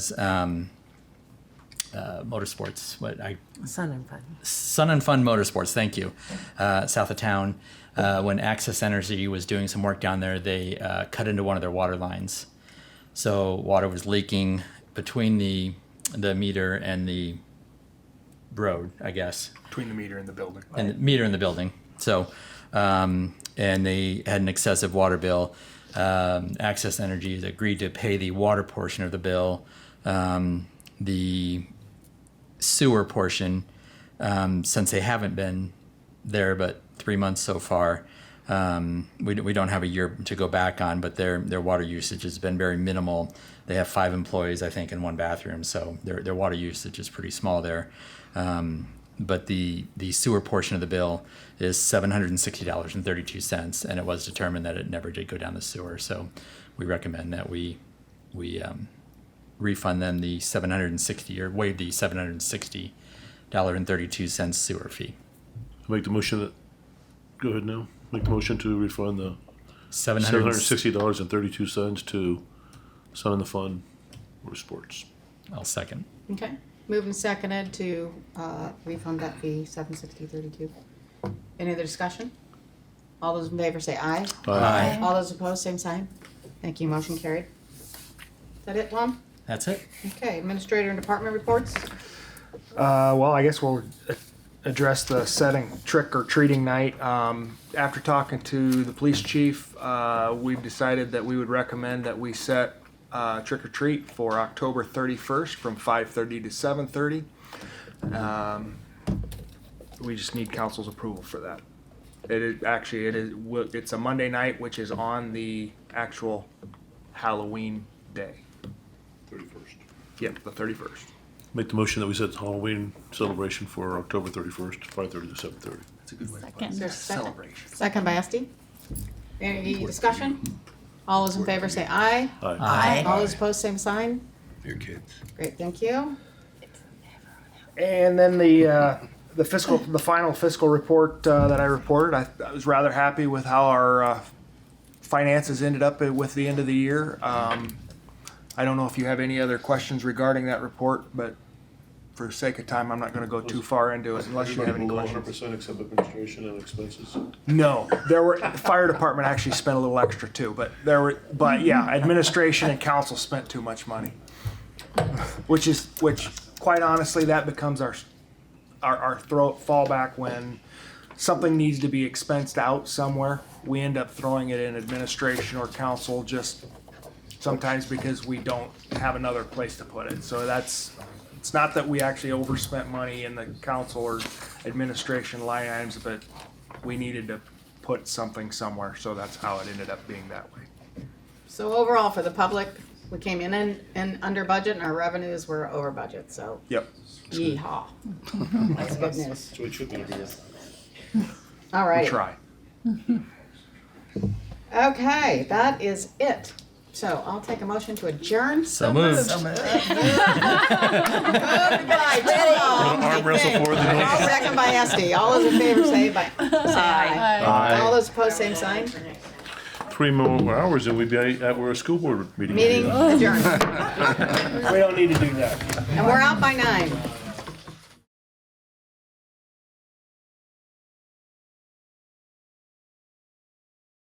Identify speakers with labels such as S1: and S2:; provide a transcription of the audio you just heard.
S1: um, uh, motorsports. What I
S2: Sun and fun.
S1: Sun and Fun Motorsports. Thank you, uh, south of town. Uh, when Access Energy was doing some work down there, they uh, cut into one of their water lines, so water was leaking between the the meter and the road, I guess,
S3: between the meter and the building.
S1: and the meter in the building. So, um, and they had an excessive water bill. Um, Access Energy has agreed to pay the water portion of the bill. Um, the sewer portion, um, since they haven't been there but three months so far, um, we, we don't have a year to go back on, but their, their water usage has been very minimal. They have five employees, I think, in one bathroom, so their, their water usage is pretty small there. Um, but the, the sewer portion of the bill is $760.32, and it was determined that it never did go down the sewer. So we recommend that we, we um, refund them the 760 or waive the 760 dollar and 32 cents sewer fee
S4: Make the motion that, go ahead now, make the motion to refund the seven hundred
S1: 760
S4: sixty dollars and thirty-two cents to Sun and the Fun or Sports.
S1: I'll second
S5: Okay, moved and seconded to uh, refund that fee, seven sixty thirty-two. Any other discussion? All those in favor say aye.
S1: Aye.
S5: All those opposed, same sign. Thank you, motion carried. Is that it, Tom?
S1: that's it
S5: Okay, administrator and department reports?
S3: Uh, well, I guess we'll a- address the setting trick or treating night. Um, after talking to the police chief, uh, we've decided that we would recommend that we set uh, trick or treat for October 31st from 5:30 to 7:30. Um, we just need council's approval for that. It is actually it is wo- it's a Monday night, which is on the actual Halloween day.
S4: Thirty-first.
S3: Yep, the 31st.
S4: Make the motion that we set the Halloween celebration for October thirty-first, five thirty to seven thirty.
S3: That's a good way to
S5: Is there a second?
S3: Celebration.
S5: Second by Esti. Any discussion? All those in favor say aye.
S4: Aye.
S1: Aye.
S5: All those opposed, same sign.
S4: Your kids.
S5: Great, thank you.
S3: And then the uh, the fiscal the final fiscal report uh, that I reported, I, I was rather happy with how our uh, finances ended up with the end of the year. Um, I don't know if you have any other questions regarding that report, but for sake of time, I'm not going to go too far into it unless you have any
S4: Below hundred
S3: questions.
S4: percent except administration and expenses.
S3: No, there were the fire department actually spent a little extra too, but there were but yeah, administration and council spent too much money, which is which quite honestly that becomes our our our throw fallback when something needs to be expensed out somewhere. We end up throwing it in administration or council just sometimes because we don't have another place to put it. So that's it's not that we actually overspent money in the council or administration line items, but we needed to put something somewhere, so that's how it ended up being that way.
S5: So overall, for the public, we came in and, and under budget and our revenues were over budget, so
S3: Yep.
S5: yeehaw. That's good news.
S4: So it should be.
S5: All
S3: We
S5: right.
S3: try.
S5: Okay, that is it. So I'll take a motion to adjourn.
S1: so moved
S5: Goodbye, Tom.
S4: Arm wrestle for the.
S5: All second by Esti. All those in favor say by, say aye.
S4: Aye.
S5: All those opposed, same sign.
S4: Three more hours and we'd be at, we're a school board meeting.
S5: Meeting adjourned.
S3: We don't need to do that.
S5: And we're out by nine.